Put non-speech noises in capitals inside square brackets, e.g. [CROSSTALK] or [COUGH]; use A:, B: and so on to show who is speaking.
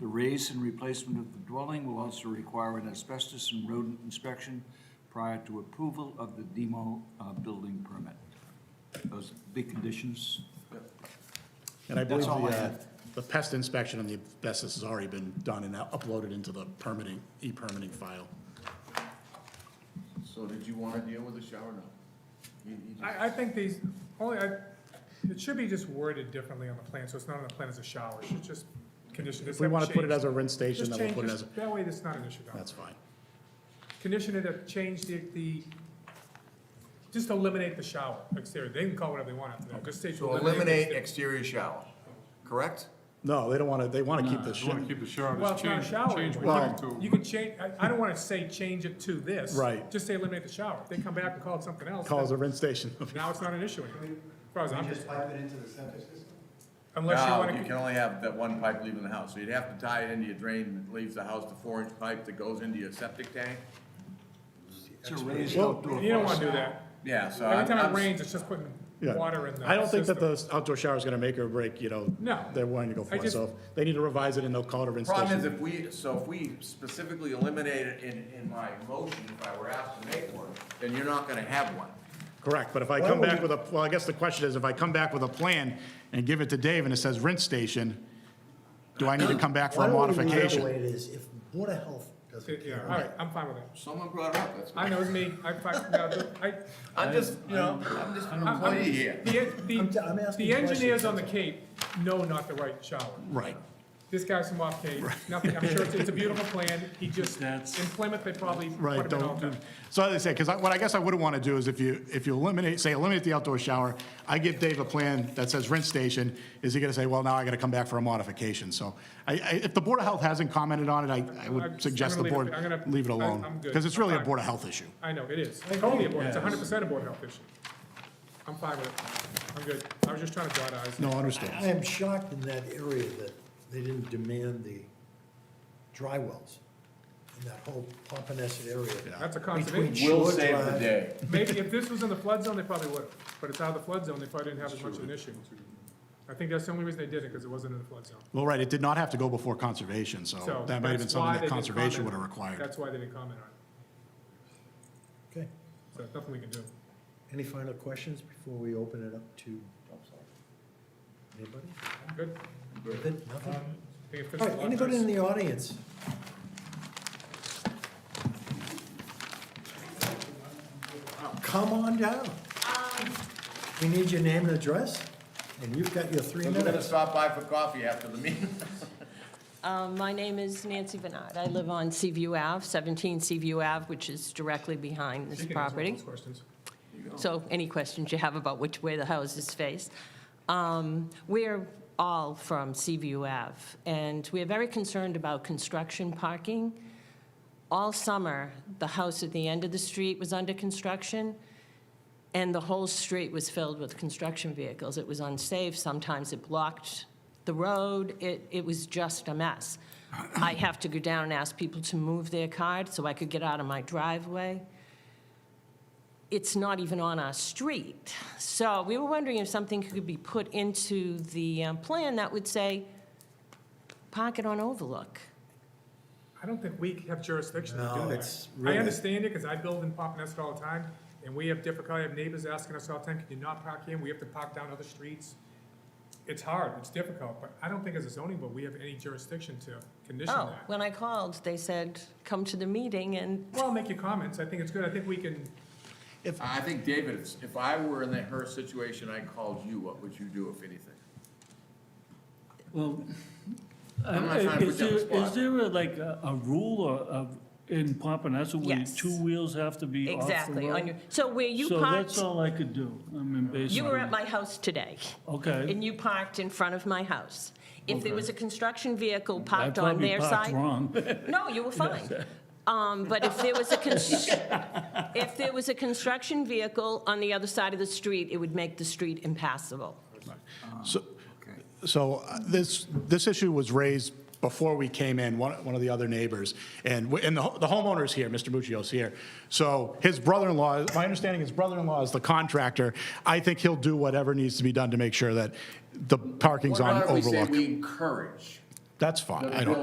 A: The raise and replacement of the dwelling will also require an asbestos and rodent inspection prior to approval of the demo uh, building permit. Those big conditions.
B: And I believe
A: That's
B: the,
A: all I
B: uh,
A: have.
B: the pest inspection and the asbestos has already been done and now uploaded into the permitting, e-permitting file.
C: So did you wanna deal with the shower or no? You- you just-
D: I, I think these, only, I, it should be just worded differently on the plan, so it's not on the plan as a shower, it should just condition.
B: If we want to put it as a rinse station, then we'll put it as, a
D: That way, it's not an issue, Don.
B: that's fine.
D: Condition it, to change the, the, just eliminate the shower exterior, they can call it whatever they want after that, just say.
C: So eliminate exterior shower, correct?
B: No, they don't want to, they want to keep the
E: You wanna
B: shit,
E: keep the shower,
D: Well,
E: just
D: it's not a
E: change,
D: shower
E: change
D: anymore.
E: one to,
D: You can change, I, I don't wanna say change it to this.
B: Right.
D: Just say eliminate the shower, if they come back and call it something else,
B: call it
D: then
B: a rinse station. [LAUGHS]
D: now it's not an issue anymore, as far as I'm,
F: Just pipe it into the septic system?
D: unless you
C: No,
D: wanna.
C: you can only have that one pipe leaving the house, so you'd have to tie it into your drain that leaves the house, the four inch pipe that goes into your septic tank.
A: It's a raised
B: Well,
A: outdoor.
D: You don't wanna
A: faucet.
D: do that.
C: Yeah, so.
D: Every
C: I'm-
D: time
C: I'm-
D: it rains, it's just putting
B: Yeah.
D: water in the
B: I don't think that
D: system.
B: the outdoor shower is going to make or break, you know,
D: No.
B: they're willing to go for
D: I
B: it.
D: just-
B: So if they need to revise it and they'll call it a rinse
C: Problem is
B: station.
C: if we, so if we specifically eliminate it in, in my motion, if I were asked to make one, then you're not gonna have one.
B: Correct, but if I
F: Why
B: come
F: would
B: back
F: we-
B: with a, well, I guess the question is, if I come back with a plan and give it to Dave and it says rinse station, do I need to come back for a
F: Why
B: modification?
F: don't we leave it the way it is, if Board of Health doesn't
D: Yeah,
F: care?
D: all right, I'm fine with that.
C: Someone brought it up, that's.
D: I know it's me, I, fi- no, the- I.
C: I'm just, you know, I'm just an
D: I'm- I'm-
C: employee here.
D: the- the-
F: I'm t- I'm asking
D: The engineers
F: questions.
D: on the Cape know not the right shower.
B: Right.
D: This guy's from off Cape, nothing, I'm sure it's, it's a beautiful plan, he just,
A: That's-
D: in Plymouth, they probably put
B: Right,
D: him in all
B: don't,
D: that.
B: do- so as I say, because what I guess I wouldn't want to do is if you, if you eliminate, say eliminate the outdoor shower, I give Dave a plan that says rinse station, is he going to say, well, now I got to come back for a modification? So I, I, if the Board of Health hasn't commented on it, I, I
D: I'm- I'm
B: would suggest the
D: gonna leave it-
B: board
D: I'm gonna-
B: leave it
D: I-
B: alone.
D: I'm good.
B: Because it's really a
D: I'm
B: Board of Health issue.
D: I know, it is, totally a board, it's hundred percent a board health issue. I'm fine with it, I'm good, I was just trying to dot i's.
B: No, understood.
F: I am shocked in that area that they didn't demand the dry wells in that whole Pompanesett area.
D: That's a
F: Between
D: conservation.
C: We'll
F: Shore
C: save the
F: Drive-
C: day.
D: Maybe if this was in the flood zone, they probably would, but it's out of the flood zone, they probably didn't have as much of an issue. I think that's the only reason they did it, because it wasn't in the flood zone.
B: Well, right, it did not have to go before conservation,
F: Oh,
B: so
D: So
B: that might have been
D: that's why
B: something
D: they
B: that
D: didn't
B: conservation would
D: comment.
B: have required.
D: That's why they didn't comment on
F: Okay,
D: it, so nothing we can do.
F: any final questions before we open it up to? Anybody?
D: Good?
F: Good, Nothing?
D: I think it fits
F: All
D: the
F: right,
D: lot
F: anybody
D: nice.
F: in the audience? Come on down. We need your name and address, and you've got your three
C: We're gonna
F: minutes.
C: stop by for coffee after the meeting.
G: Um, My name is Nancy Bernard. I live on Seaview Ave, 17 Seaview Ave, which is directly behind this
D: She can answer all
G: property.
D: those questions.
G: So any questions you have about which way the houses face. Um, We're all from Seaview Ave, and we are very concerned about construction parking. All summer, the house at the end of the street was under construction, and the whole street was filled with construction vehicles. It was unsafe, sometimes it blocked the road, it, it was just a mess. I have to go down and ask people to move their cart so I could get out of my driveway it's not even on our street. So we were wondering if something could be put into the uh, plan that would say, park it on Overlook.
D: I don't think we have jurisdiction to
F: No,
D: do that.
F: it's
D: I
F: really-
D: understand it, because I build in Pompanesett all the time, and we have difficulty, I have neighbors asking us all the time, can you not park here? We have to park down other streets. It's hard, it's difficult, but I don't think as a zoning board, we have any jurisdiction to condition
G: Oh,
D: that.
G: when I called, they said, come to the meeting and,
D: Well, I'll make your comments, I think it's good, I think we can,
C: I think, David, it's- if I were in that her situation, I called you, what would you do if anything?
H: Well,
C: I'm not trying to put you on the
H: is there, is
C: spot.
H: there a, like a, a rule or of, in Pompanesett where
G: Yes.
H: two wheels have to be off the
G: exactly, on
H: road?
G: your, so where you
H: So
G: parked,
H: that's all I could do, I mean, basically.
G: you were at my house today,
H: Okay.
G: and you parked in front of my house. If there
H: Okay.
G: was a construction vehicle
H: I
G: parked on
H: probably
G: their
H: parked
G: side.
H: wrong.
G: No, you were fine. Um, But if there was a, cons- if there was a construction vehicle on the other side of the street, it would make the street impassable.
B: So, so uh, this, this issue was raised before we came in, one, one of the other neighbors, and, we- and the ho- the homeowner's here, Mr. Muccio's here. So his brother-in-law, my understanding, his brother-in-law is the contractor. I think he'll do whatever needs to be done to make sure that the parking's
C: Why
B: on
C: don't we say
B: Overlook.
C: we encourage?
B: That's fine, I
C: the
B: don't.